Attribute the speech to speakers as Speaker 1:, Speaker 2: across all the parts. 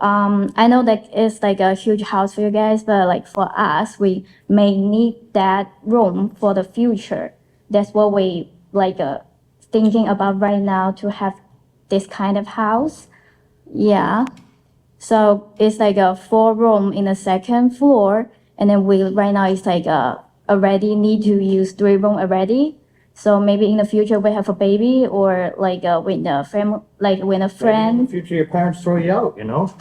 Speaker 1: um, I know that it's like a huge house for you guys, but like for us, we may need that room for the future. That's what we like uh, thinking about right now to have this kind of house. Yeah. So it's like a four room in the second floor, and then we right now it's like uh already need to use three room already. So maybe in the future we have a baby or like uh, when a fam like when a
Speaker 2: In the
Speaker 1: friend.
Speaker 2: future, your parents throw you out, you know?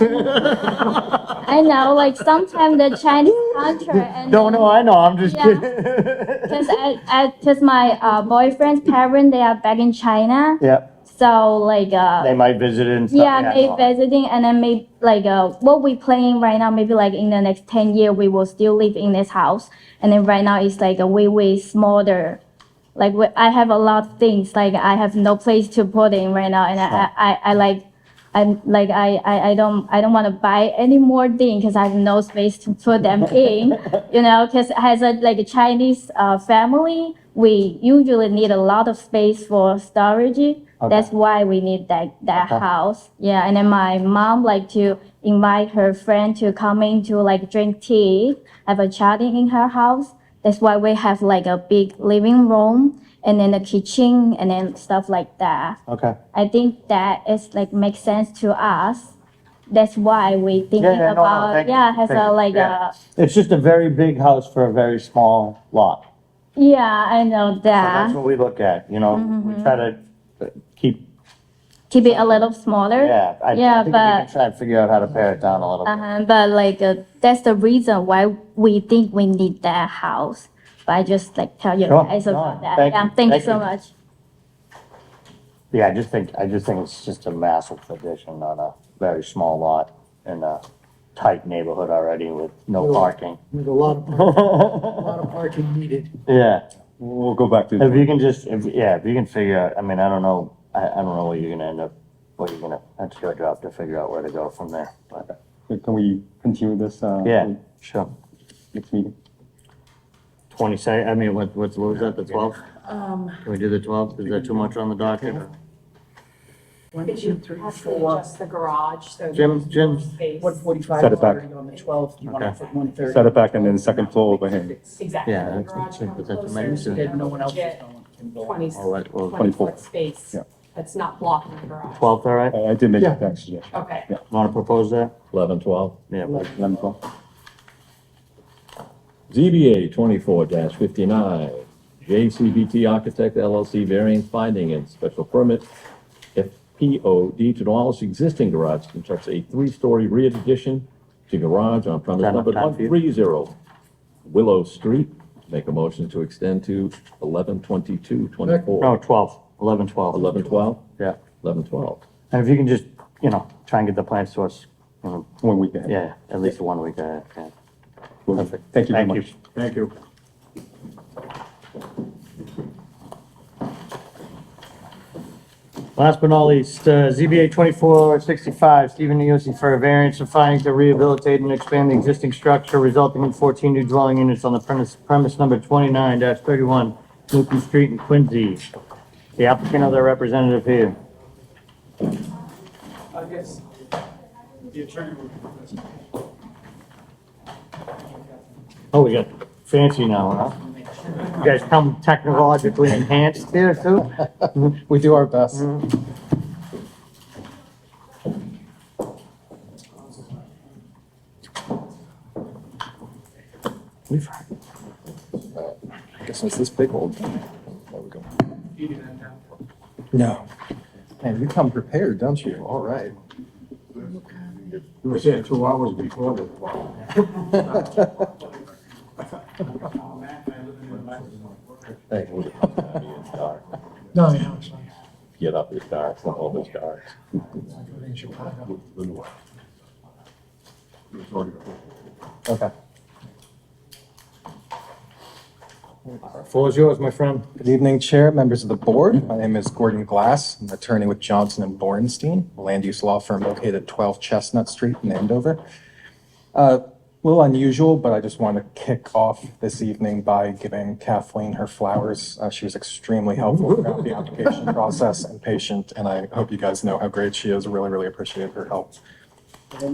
Speaker 1: I know like sometimes the Chinese culture and
Speaker 2: No, no, I know, I'm just
Speaker 1: Yeah.
Speaker 2: kidding.
Speaker 1: because I, I because my uh, boyfriend's parents they are back in China,
Speaker 2: Yeah,
Speaker 1: so like uh,
Speaker 2: they might visit and stuff.
Speaker 1: Yeah,
Speaker 2: no.
Speaker 1: maybe visiting and then maybe like uh, what we playing right now, maybe like in the next 10 year, we will still live in this house. And then right now it's like a way, way smaller. Like we, I have a lot of things, like I have no place to put in right now. And I, I, I, I like, I'm like, I, I, I don't, I don't want to buy any more thing because I have no space to put them in, you know, because as a, like a Chinese uh, family, we usually need a lot of space for storage. That's why we need that that
Speaker 2: Okay.
Speaker 1: house. Yeah, and then my mom like to invite her friend to come in to like drink tea, have a chatting in her house. That's why we have like a big living room and then a kitchen and then stuff like that.
Speaker 2: Okay,
Speaker 1: I think that is like makes sense to us. That's why we thinking
Speaker 2: yeah, no, no,
Speaker 1: about
Speaker 2: thank you,
Speaker 1: yeah has
Speaker 2: thank
Speaker 1: a
Speaker 2: you,
Speaker 1: like
Speaker 2: yeah.
Speaker 1: a
Speaker 2: it's just a very big house for a very small lot.
Speaker 1: yeah Mm-hmm. I know
Speaker 2: So that's
Speaker 1: that
Speaker 2: what we look at, you know, we try to uh, keep,
Speaker 1: keep it a little smaller.
Speaker 2: yeah. I- I
Speaker 1: Yeah,
Speaker 2: think we
Speaker 1: but-
Speaker 2: can Try and figure out how to pare it down a little bit.
Speaker 1: Uh-huh, but like uh, that's the reason why we think we need that house. But I just like tell you
Speaker 2: Sure.
Speaker 1: guys about
Speaker 2: No,
Speaker 1: that.
Speaker 2: thank
Speaker 1: yeah,
Speaker 2: you.
Speaker 1: thank you
Speaker 2: Thank
Speaker 1: so
Speaker 2: you.
Speaker 1: much.
Speaker 2: Yeah, I just think, I just think it's just a massive addition on a very small lot in a tight neighborhood already with no
Speaker 3: Really?
Speaker 2: parking.
Speaker 3: There's a lot of, a lot of parking needed.
Speaker 2: Yeah,
Speaker 4: We'll go back to.
Speaker 2: if you can just, if, yeah, if you can figure out, I mean, I don't know, I, I don't know where you're gonna end up, where you're gonna, that's your job to figure out where to go from there, but,
Speaker 4: Can we continue this? uh,
Speaker 2: yeah, sure.
Speaker 4: Next meeting?
Speaker 2: Twenty second, I mean, what, what's, what was that, the twelfth?
Speaker 5: Um,
Speaker 2: Can we do the twelfth? Is that too much on the docket?
Speaker 3: One,
Speaker 5: could
Speaker 3: two,
Speaker 5: you
Speaker 3: three,
Speaker 5: possibly
Speaker 3: four,
Speaker 5: adjust the garage so?
Speaker 2: Jim-
Speaker 5: there's
Speaker 2: Jim.
Speaker 5: more space?
Speaker 3: one forty-five
Speaker 4: Set it back.
Speaker 3: already on the twelfth, you want
Speaker 2: Okay.
Speaker 3: to put one thirty.
Speaker 4: Set it back and then second floor over here.
Speaker 5: Exactly.
Speaker 2: Yeah,
Speaker 5: The
Speaker 2: that's-
Speaker 5: garage
Speaker 2: that's-
Speaker 5: comes
Speaker 2: that's
Speaker 5: closer
Speaker 2: amazing.
Speaker 5: so
Speaker 3: Then no one else is
Speaker 5: get
Speaker 3: going. can go.
Speaker 5: Twenty,
Speaker 2: All right, well,
Speaker 5: twenty
Speaker 4: 24.
Speaker 5: foot space
Speaker 4: Yeah.
Speaker 5: that's not blocking the garage.
Speaker 2: Twelfth, all right?
Speaker 4: I I did make
Speaker 3: Yeah.
Speaker 4: that suggestion.
Speaker 5: Okay.
Speaker 4: Yeah.
Speaker 2: Wanna propose that?
Speaker 6: Eleven, twelve.
Speaker 2: Yeah, but-
Speaker 4: Eleven, twelve.
Speaker 6: ZBA twenty-four fifty-nine, JCBT Architect LLC variance finding and special permit. FPOD to demolish existing garage constructs a three-story rear addition to garage on premise
Speaker 2: Time,
Speaker 6: number
Speaker 2: time
Speaker 6: one
Speaker 2: for you.
Speaker 6: three zero Willow Street. Make a motion to extend to eleven twenty-two
Speaker 2: no,
Speaker 6: twenty-four.
Speaker 2: twelve, eleven, twelve.
Speaker 6: Eleven, twelve?
Speaker 2: Yeah,
Speaker 6: Eleven, twelve.
Speaker 2: and if you can just, you know, try and get the plans to us, you know,
Speaker 4: One week ahead.
Speaker 2: yeah, at least one week ahead, yeah.
Speaker 4: Perfect. Thank you very
Speaker 2: Thank you.
Speaker 4: much. Thank you.
Speaker 2: Last but not least, uh, ZBA 2465, Stephen Niosi for a variance of finding to rehabilitate and expand the existing structure resulting in 14 new dwelling units on the premise, premise number 29-31 Newcomb Street in Quincy. The applicant or their representative here.
Speaker 3: I guess the attorney would.
Speaker 2: Oh, we got fancy now, huh? You guys come technologically enhanced here too?
Speaker 4: We do our best.
Speaker 2: We've-
Speaker 4: I guess it's this big old. There we go. No. Man, you come prepared, don't you? All right.
Speaker 7: You were saying two hours before the
Speaker 6: Thank you.
Speaker 3: No, no, it's not.
Speaker 6: Get up, it's dark, it's not always dark.
Speaker 3: In Chicago.
Speaker 4: Okay.
Speaker 2: Floor's yours, my friend.
Speaker 4: Good evening, Chair, members of the board. My name is Gordon Glass, I'm an attorney with Johnson and Borenstein, a land use law firm located at 12 Chestnut Street in Andover. Uh, A little unusual, but I just want to kick off this evening by giving Kathleen her flowers. Uh, She was extremely helpful throughout the application process and patient, and I hope you guys know how great she is. Really, really appreciate her help.